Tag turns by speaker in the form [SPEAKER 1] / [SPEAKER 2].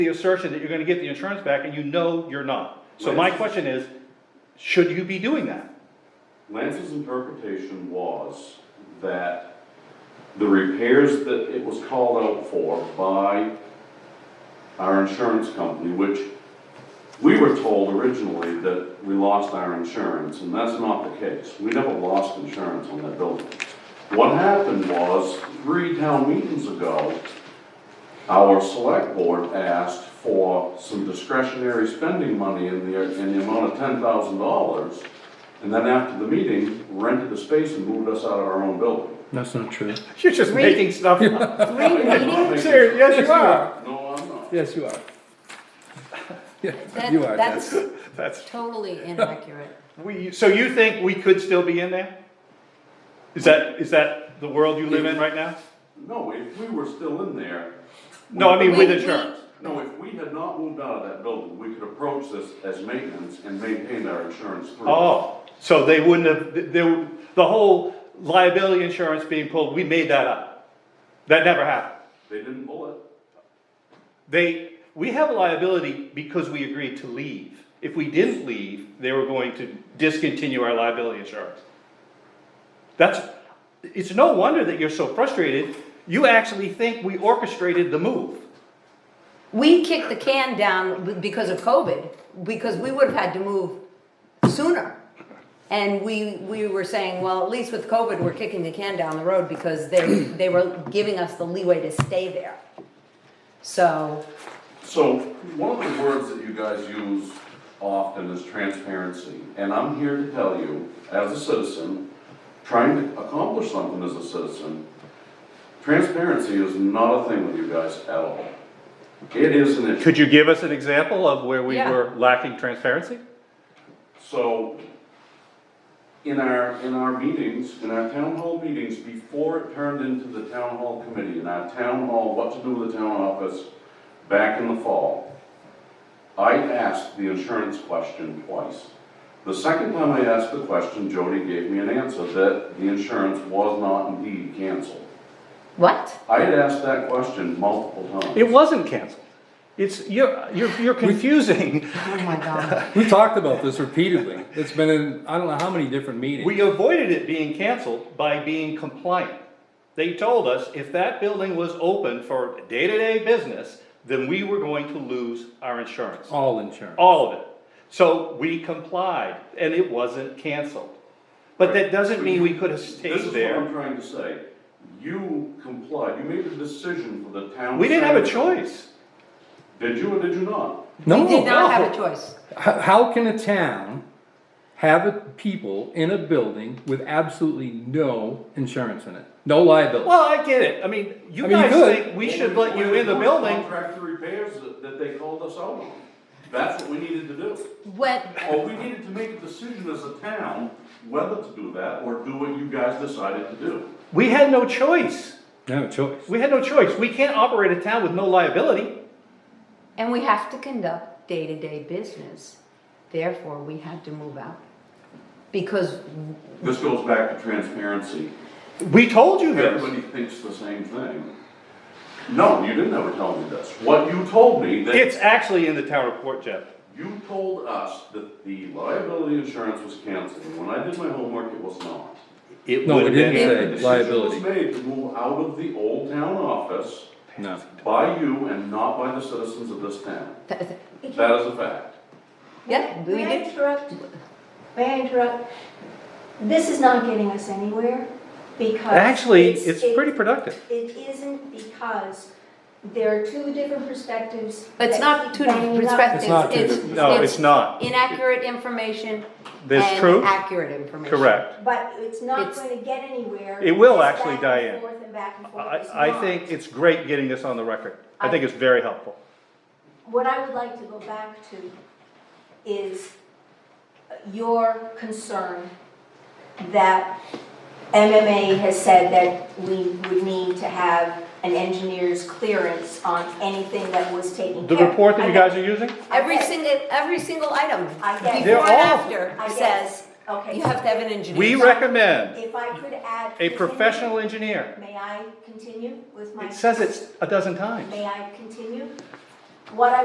[SPEAKER 1] the assertion that you're gonna get the insurance back and you know you're not. So my question is, should you be doing that?
[SPEAKER 2] Lance's interpretation was that the repairs that it was called out for by our insurance company, which we were told originally that we lost our insurance, and that's not the case. We never lost insurance on that building. What happened was, three town meetings ago, our select board asked for some discretionary spending money in the, in the amount of ten thousand dollars. And then after the meeting, rented the space and moved us out of our own building.
[SPEAKER 3] That's not true.
[SPEAKER 1] You're just
[SPEAKER 4] Three.
[SPEAKER 1] making stuff up.
[SPEAKER 4] Three meetings?
[SPEAKER 1] Serious, yes, you are.
[SPEAKER 2] No, I'm not.
[SPEAKER 3] Yes, you are. Yeah,
[SPEAKER 4] That-
[SPEAKER 3] you are,
[SPEAKER 4] That's
[SPEAKER 3] yes.
[SPEAKER 1] That's,
[SPEAKER 4] totally inaccurate.
[SPEAKER 1] we, so you think we could still be in there? Is that, is that the world you live in right now?
[SPEAKER 2] No, if we were still in there. we-
[SPEAKER 1] No, I mean with
[SPEAKER 4] We- we-
[SPEAKER 1] insurance.
[SPEAKER 2] No, if we had not moved out of that building, we could approach this as maintenance and maintain our insurance through.
[SPEAKER 1] Oh, so they wouldn't have, there, the whole liability insurance being pulled, we made that up. That never happened.
[SPEAKER 2] They didn't pull it.
[SPEAKER 1] They, we have a liability because we agreed to leave. If we didn't leave, they were going to discontinue our liability insurance. That's, it's no wonder that you're so frustrated. You actually think we orchestrated the move.
[SPEAKER 4] We kicked the can down b- because of COVID, because we would have had to move sooner. And we, we were saying, well, at least with COVID, we're kicking the can down the road because they, they were giving us the leeway to stay there. So,
[SPEAKER 2] So one of the words that you guys use often is transparency. And I'm here to tell you, as a citizen, trying to accomplish something as a citizen, transparency is not a thing with you guys at all. It is an issue.
[SPEAKER 1] Could you give us an example of where we
[SPEAKER 4] Yeah.
[SPEAKER 1] were lacking transparency?
[SPEAKER 2] So, in our, in our meetings, in our town hall meetings, before it turned into the town hall committee, in our town hall, what to do with the town office, back in the fall, I asked the insurance question twice. The second time I asked the question, Jody gave me an answer that the insurance was not indeed canceled.
[SPEAKER 4] what?
[SPEAKER 2] I had asked that question multiple times.
[SPEAKER 1] It wasn't canceled. It's, you're, you're, you're confusing.
[SPEAKER 4] Oh my God.
[SPEAKER 3] We talked about this repeatedly. It's been in, I don't know how many different meetings.
[SPEAKER 1] We avoided it being canceled by being compliant. They told us if that building was open for day-to-day business, then we were going to lose our insurance,
[SPEAKER 3] All insurance.
[SPEAKER 1] all of it. So we complied and it wasn't canceled. But that doesn't mean we could have
[SPEAKER 2] This
[SPEAKER 1] stayed
[SPEAKER 2] is what I'm
[SPEAKER 1] there.
[SPEAKER 2] trying to say. You complied, you made a decision for the town.
[SPEAKER 1] We didn't have a
[SPEAKER 2] center.
[SPEAKER 1] choice.
[SPEAKER 2] Did you or did you not?
[SPEAKER 4] We did
[SPEAKER 3] Oh, No,
[SPEAKER 4] not
[SPEAKER 1] no.
[SPEAKER 4] have a choice.
[SPEAKER 3] how, how can a town have a- people in a building with absolutely no insurance in it? No liability?
[SPEAKER 1] Well, I get it. I mean,
[SPEAKER 3] I
[SPEAKER 1] you
[SPEAKER 3] mean, you
[SPEAKER 1] guys
[SPEAKER 3] could.
[SPEAKER 1] think we should let you in the building.
[SPEAKER 2] Contractor repairs that, that they called us out on. That's what we needed to do.
[SPEAKER 4] What,
[SPEAKER 2] Or
[SPEAKER 3] Oh.
[SPEAKER 2] we needed to make a decision as a town whether to do that or do what you guys decided to do.
[SPEAKER 1] We had no choice.
[SPEAKER 3] No choice.
[SPEAKER 1] We had no choice. We can't operate a town with no liability.
[SPEAKER 4] and we have to conduct day-to-day business, therefore we had to move out. Because
[SPEAKER 2] This goes back to transparency.
[SPEAKER 1] We told you this.
[SPEAKER 2] Everybody thinks the same thing. No, you didn't ever tell me this. What you told me that.
[SPEAKER 1] It's actually in the town report, Jeff.
[SPEAKER 2] You told us that the liability insurance was canceled. When I did my homework, it was not.
[SPEAKER 1] It
[SPEAKER 3] No,
[SPEAKER 1] would've
[SPEAKER 3] we didn't
[SPEAKER 1] been-
[SPEAKER 3] say.
[SPEAKER 2] The decision
[SPEAKER 3] liability.
[SPEAKER 2] was made to move out of the old town office
[SPEAKER 3] No.
[SPEAKER 2] by you and not by the citizens of this town.
[SPEAKER 4] th- th-
[SPEAKER 2] That is a fact.
[SPEAKER 4] Yeah, we
[SPEAKER 5] May I
[SPEAKER 4] did.
[SPEAKER 5] interrupt? May I interrupt? This is not getting us anywhere because.
[SPEAKER 1] Actually, it's
[SPEAKER 5] it-
[SPEAKER 1] pretty productive.
[SPEAKER 5] It isn't because there are two different perspectives.
[SPEAKER 4] It's
[SPEAKER 5] that
[SPEAKER 4] not
[SPEAKER 5] keep
[SPEAKER 4] two different
[SPEAKER 5] banging up.
[SPEAKER 4] perspectives.
[SPEAKER 3] It's not two
[SPEAKER 2] different
[SPEAKER 1] No, it's not.
[SPEAKER 4] Inaccurate information.
[SPEAKER 1] There's
[SPEAKER 4] and
[SPEAKER 1] truth.
[SPEAKER 4] Accurate information.
[SPEAKER 1] Correct.
[SPEAKER 5] But it's not
[SPEAKER 4] It's-
[SPEAKER 5] going to get anywhere.
[SPEAKER 1] It will
[SPEAKER 5] It's
[SPEAKER 1] actually,
[SPEAKER 5] back and
[SPEAKER 1] Diane.
[SPEAKER 5] forth and back and forth.
[SPEAKER 1] I,
[SPEAKER 5] It's
[SPEAKER 1] I
[SPEAKER 5] not.
[SPEAKER 1] think it's great getting this on the record. I think it's very helpful.
[SPEAKER 5] What I would like to go back to is your concern that MMA has said that we would need to have an engineer's clearance on anything that was taken
[SPEAKER 1] The
[SPEAKER 5] care of.
[SPEAKER 1] report that you
[SPEAKER 5] I get-
[SPEAKER 1] guys are using,
[SPEAKER 4] Every single, every single item,
[SPEAKER 5] I
[SPEAKER 4] before
[SPEAKER 5] get it.
[SPEAKER 4] and
[SPEAKER 1] They're all-
[SPEAKER 4] after,
[SPEAKER 5] I get it.
[SPEAKER 4] says,
[SPEAKER 5] Okay.
[SPEAKER 4] you have to have an engineer.
[SPEAKER 1] we recommend
[SPEAKER 5] If I could add.
[SPEAKER 1] a professional engineer.
[SPEAKER 5] May I continue with my?
[SPEAKER 1] It says it a dozen times.
[SPEAKER 5] May I continue? what I